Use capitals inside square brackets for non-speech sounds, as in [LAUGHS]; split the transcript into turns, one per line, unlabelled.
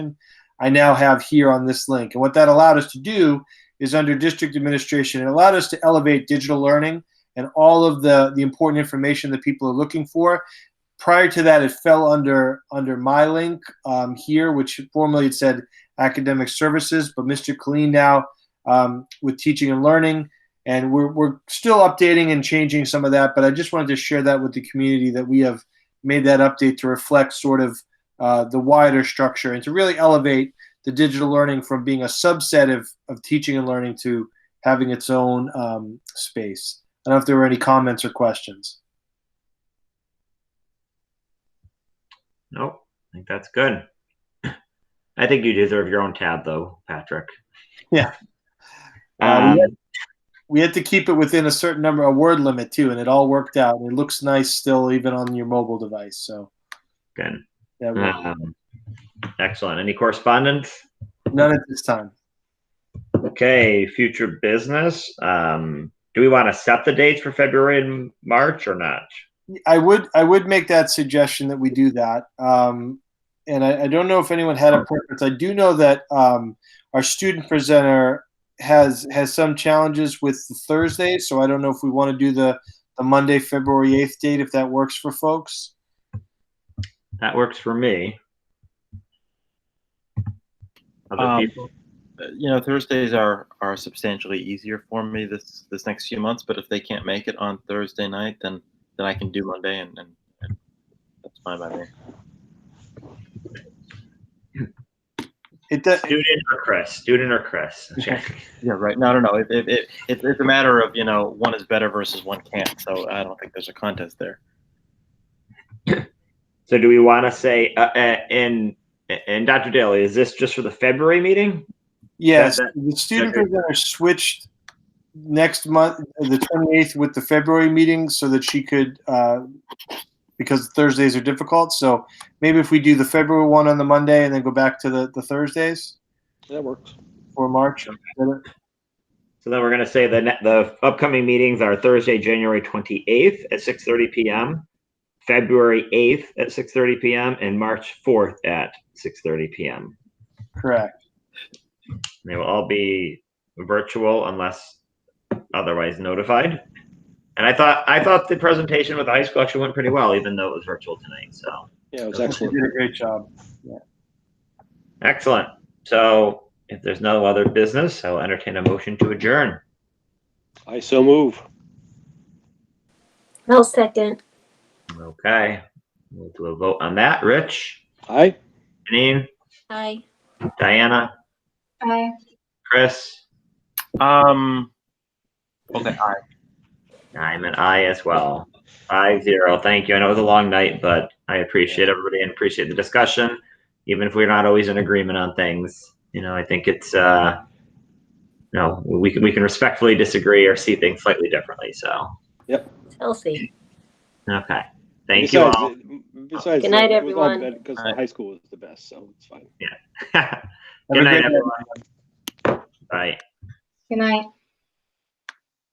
I now have here on this link. And what that allowed us to do is under district administration, it allowed us to elevate digital learning and all of the, the important information that people are looking for. Prior to that, it fell under under my link um, here, which formerly it said academic services, but Mr. Colleen now um, with teaching and learning. And we're, we're still updating and changing some of that, but I just wanted to share that with the community that we have made that update to reflect sort of uh, the wider structure and to really elevate the digital learning from being a subset of, of teaching and learning to having its own um, space. I don't know if there were any comments or questions.
Nope. I think that's good. I think you deserve your own tab, though, Patrick.
Yeah. Uh,
[LAUGHS] Um,
we, had, we had to keep it within a certain number, a word limit too, and it all worked out. It looks nice still, even on your mobile device. So
good.
that worked.
Um, excellent. Any correspondence?
none at this time.
Okay. Future business. Um, do we want to set the dates for February and March or not?
I would I would make that suggestion that we do that. Um, and I, I don't know if anyone had a preference. I do know that um, our student presenter has has some challenges with the Thursday, so I don't know if we want to do the the Monday, February eighth date if that works for folks.
That works for me. Other
Um,
people?
you know thursdays are are substantially easier for me this this next few months but if they can't make it on thursday night then then i can do monday and, and, and that's fine by me
It does.
Student or Chris? Student or Chris? Okay.
yeah right no no no it, it, it, it's it's a matter of you know one is better versus one can't so i don't think there's a contest there
So do we want to say, uh, uh, and and Dr. Daly, is this just for the February meeting?
Yes,
that-
the student
that-
presenter switched next month, the twenty eighth, with the February meeting, so that she could, uh, because Thursdays are difficult. So maybe if we do the February one on the Monday and then go back to the, the Thursdays
That works.
for March.
So then we're going to say the ne- the upcoming meetings are Thursday, January 28th at 6:30 p.m., February 8th at 6:30 p.m., and March 4th at 6:30 p.m.
Correct.
They will all be virtual unless otherwise notified. And I thought I thought the presentation with the high school actually went pretty well, even though it was virtual tonight. So.
Yeah, it was
Okay.
You
excellent.
did a great job.
Excellent. So if there's no other business, I'll entertain a motion to adjourn.
I so move.
I'll second.
Okay. We'll do a vote on that. Rich,
Aye.
Janine,
Aye.
Diana,
Aye.
Chris,
um okay I,
I'm an I as well. Five zero. Thank you. I know it was a long night, but I appreciate everybody and appreciate the discussion. Even if we're not always in agreement on things, you know, I think it's uh no, we can we can respectfully disagree or see things slightly differently. So
Healthy.
okay. Thank
Besides-
you all.
Besides,
Good night,
it was all
everyone.
bad Because the
Bye.
high school was the best, so it's fine.
[LAUGHS] Good
Have a
night,
great
everyone. Bye.
Good night.